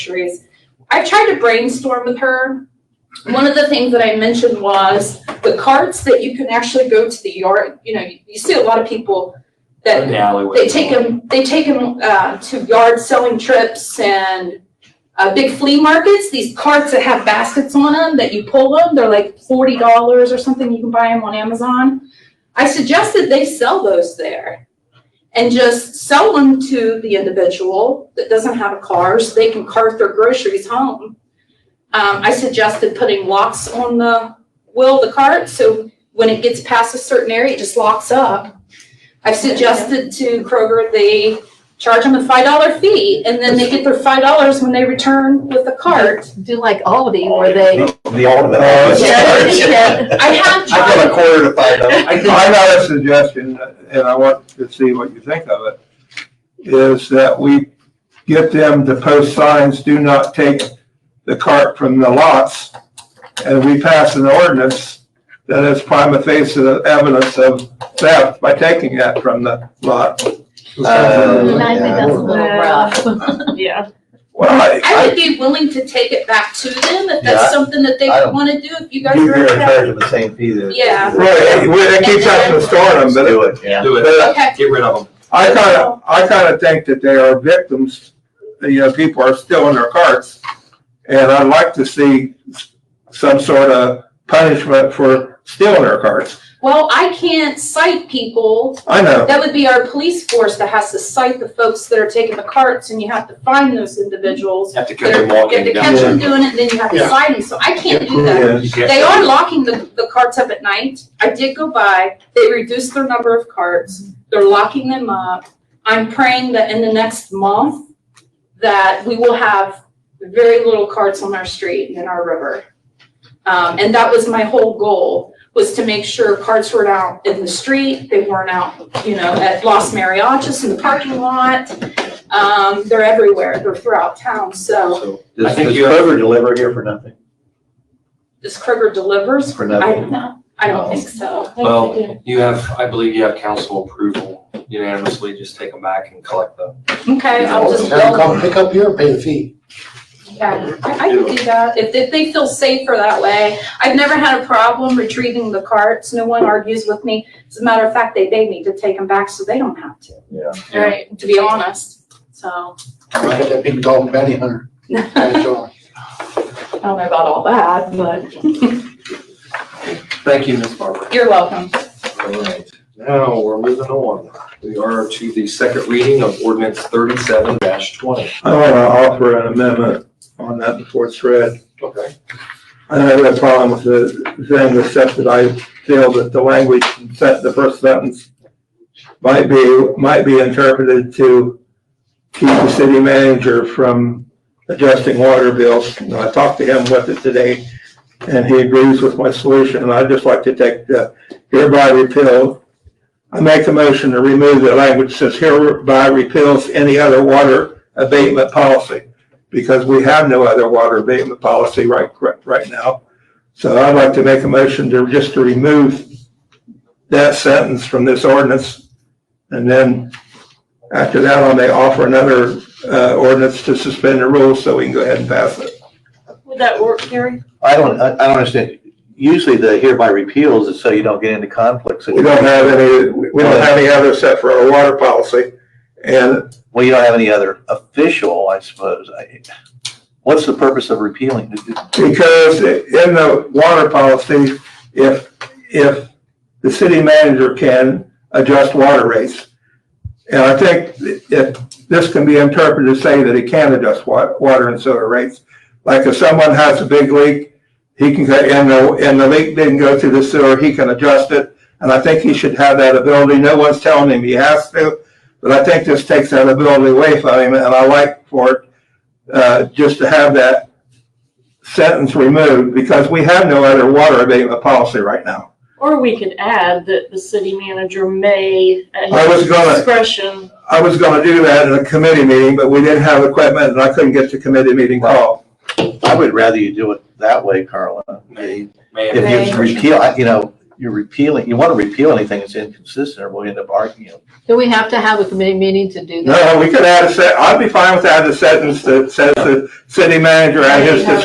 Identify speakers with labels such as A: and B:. A: fisheries. I've tried to brainstorm with her. One of the things that I mentioned was the carts that you can actually go to the yard, you know, you you see a lot of people that
B: the alleyway.
A: they take them, they take them uh, to yard selling trips and uh, big flea markets, these carts that have baskets on them that you pull them, they're like forty dollars or something, you can buy them on Amazon. I suggested they sell those there and just sell them to the individual that doesn't have a car, so they can cart their groceries home. Um, I suggested putting locks on the wheel of the cart, so when it gets past a certain area, it just locks up. I've suggested to Kroger they charge them a five dollar fee and then they get their five dollars when they return with the cart.
C: Do like Aldi where they.
D: The ultimate.
C: Yeah.
A: I have
D: I give a
A: tried,
D: quarter to five dollars.
B: I think-
E: I got a suggestion, and I want to see what you think of it, is that we get them to post signs, do not take the cart from the lots, and we pass an ordinance that is prima facie evidence of theft by taking that from the lot.
B: Oh,
D: Uh,
C: And I think that's a little rough.
F: Yeah.
E: Well, I,
A: I would be willing to take it back to them if
D: Yeah, I-
A: that's something that they
D: I don't-
A: wanna do, if you guys
D: You-
A: are
D: You're in charge
A: okay.
D: of the same fee that.
A: Yeah.
E: right, we- they keep trying to store them, but
D: Do it, yeah.
B: Do it,
A: Okay,
B: get rid of them.
E: I kind of, I kind of think that they are victims, you know, people are still in their carts. And I'd like to see s- some sort of punishment for stealing their carts.
A: well, I can't cite people,
E: I know,
A: that would be our police force that has to cite the folks that are taking the carts and you have to find those individuals.
B: Have to catch
A: They're-
B: them
A: You have
B: walking
A: to
B: down.
A: catch them doing it, then you have to cite them, so I can't do that.
B: You can't-
A: They are locking the, the carts up at night. I did go by. They reduced their number of carts. They're locking them up. I'm praying that in the next month that we will have very little carts on our street and in our river. Um, and that was my whole goal, was to make sure carts weren't out in the street. They weren't out, you know, at Los Mariachis in the parking lot. Um, they're everywhere. They're throughout town. So
D: So,
B: I
D: Does,
B: think
D: does
B: you have-
D: Kroger deliver here for nothing?
A: this Kroger delivers.
D: For
A: I
D: nothing?
A: don't know. I don't think so.
B: Well, you have, I believe you have council approval unanimously, just take them back and collect them.
A: Okay, I'll just.
G: Have them come pick up here and pay the fee.
A: Yeah, I, I can do that, if, if they feel safer that way. I've never had a problem retrieving the carts, no one argues with me. As a matter of fact, they beg me to take them back so they don't have to.
D: Yeah.
A: Right. To be honest, so,
G: Look at that big dog bounty hunter.
A: I
G: That's all.
A: don't know about all that, but
B: Thank you, Ms. Barber.
A: you're welcome.
B: All right, now we're moving on. We are to the second reading of ordinance thirty-seven twenty.
E: I want to offer an amendment on that before it's read.
B: Okay.
E: I don't have a problem with the thing, except that I feel that the language, set the first sentence might be, might be interpreted to keep the city manager from adjusting water bills. And I talked to him with it today, and he agrees with my solution, and I'd just like to take the hereby repeal. I make the motion to remove the language that says hereby repeals any other water abatement policy, because we have no other water abatement policy right, right, right now. So I'd like to make a motion to, just to remove that sentence from this ordinance, and then after that, I may offer another uh, ordinance to suspend the rules so we can go ahead and pass it.
F: Would that work, Gary?
D: I don't, I, I don't understand. Usually the hereby repeals is so you don't get into conflicts.
E: We don't have any, we don't have any other set for our water policy. And
D: Well, you don't have any other official, I suppose. I- What's the purpose of repealing?
E: because in the water policy, if, if the city manager can adjust water rates, and I think if, this can be interpreted to say that he can adjust wa- water and sewer rates. Like if someone has a big leak, he can, go- and the, and the leak didn't go through the sewer, he can adjust it. And I think he should have that ability. No one's telling him he has to, but I think this takes that ability away from him, and I like for it, uh, just to have that sentence removed, because we have no other water abatement policy right now.
F: Or we could add that the city manager may,
E: I
F: at
E: was
F: his
E: gonna-
F: discretion,
E: I was gonna do that in a committee meeting, but we didn't have equipment, and I couldn't get the committee meeting called.
D: I would rather you do it that way, Carla. If
B: May I
D: you repeal, I- you know, you're repealing, you want to repeal anything that's inconsistent, or we'll end up arguing. you know.
C: Do we have to have a committee meeting to do that?
E: No, we could add a set, I'd be fine with adding a sentence that says the city manager at his discretion